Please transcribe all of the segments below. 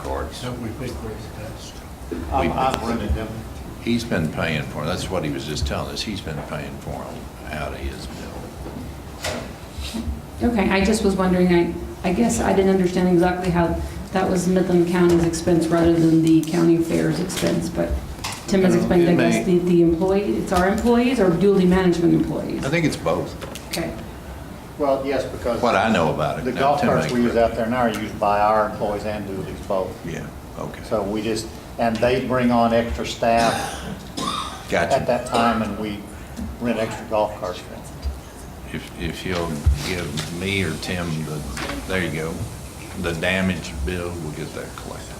Is that what we paid for the test? We- Um, I- He's been paying for it. That's what he was just telling us. He's been paying for them out of his bill. Okay, I just was wondering, I, I guess I didn't understand exactly how that was Midland County's expense rather than the county fair's expense, but Tim has Uh, explained, I it guess, the, may- the employee, it's our employees or duly management employees? I think it's both, Okay, Well, yes, because. what I know about it. The Now, golf Tim carts ain't we use really- out there now are used by our employees and duties both. Yeah, okay. So we just, and they bring on extra staff at Gotcha. that time and we rent extra golf carts for them. If, if you'll give me or Tim the, there you go, the damage bill, we'll get that collected.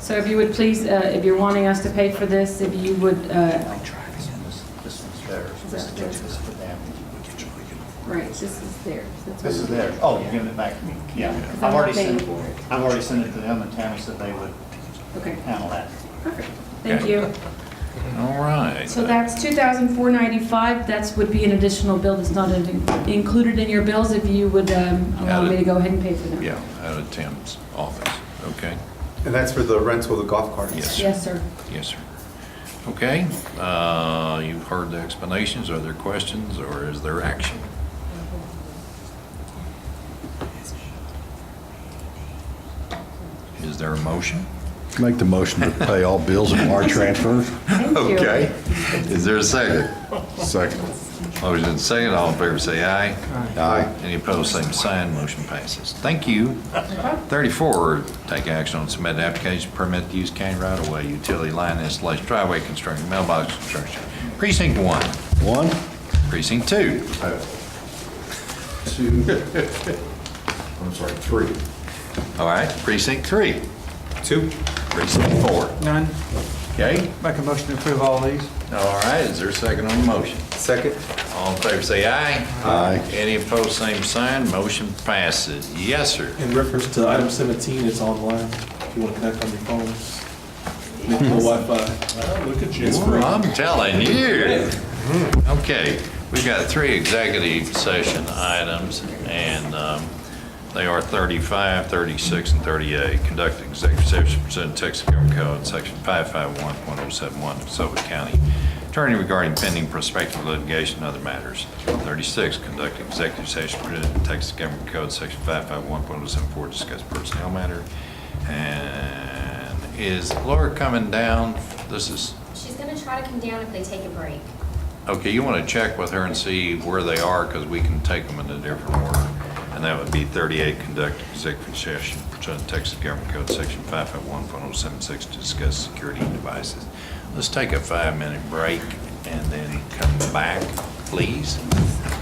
so if you would please, uh, if you're wanting us to pay for this, if you would, uh, This this one's theirs, this is theirs, this is for them. right, this is theirs. that's This is what- theirs, oh, you're giving it back to me, yeah. Because I'm I've already not paying sent, for it. I've already sent it to them and Tammy said they would Okay, handle that. perfect, thank Okay. you. All right. So that's two thousand four ninety-five, that's would be an additional bill that's not in- included in your bills if you would, um, allow me to go ahead and pay for them. Yeah, out of Tim's office. Okay, And that's for the rental of the golf carts? Yes. Yes, sir. yes, sir. Okay, uh, you've heard the explanations. Are there questions or is there action? Is there a motion? Make the motion to pay all bills and wire transfers. Thank you. Okay, is there a second? Second. Motion and second, all in favor say aye. Aye. Any opposed, same sign, motion passes. Thank you. 34, take action on submitted application permit to use county right-of-way utility line installation, driveway construction, mailbox construction. Precinct 1, One, precinct 2, Uh, Two, I'm sorry, three. all right, precinct 3, Two? precinct 4. None. Okay, Make a motion to approve all these. all right, is there a second on the motion? Second? All in favor say aye. Aye. Any opposed, same sign, motion passes. Yes, sir. In reference to item 17, it's online, if you want to connect on your phone. Make no Wi-Fi. Ooh, I'm telling you. Okay, we've got three executive session items, and um, they are 35, 36, and 38. Conduct executive session pursuant to Texas Government Code, Section 551.071, of Suffolk County Attorney regarding pending prospective litigation and other matters. 36, conduct executive session pursuant to Texas Government Code, Section 551.074, discuss personnel matter. And is Laura coming down? This is She's gonna try to come down if they take a break. Okay, you want to check with her and see where they are, because we can take them in a different order. And that would be 38, conduct executive session pursuant to Texas Government Code, Section 551.076, to discuss security devices. Let's take a five-minute break and then come back, please.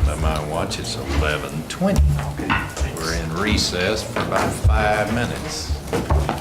By my watch, it's 11:20. We're in recess for about five minutes.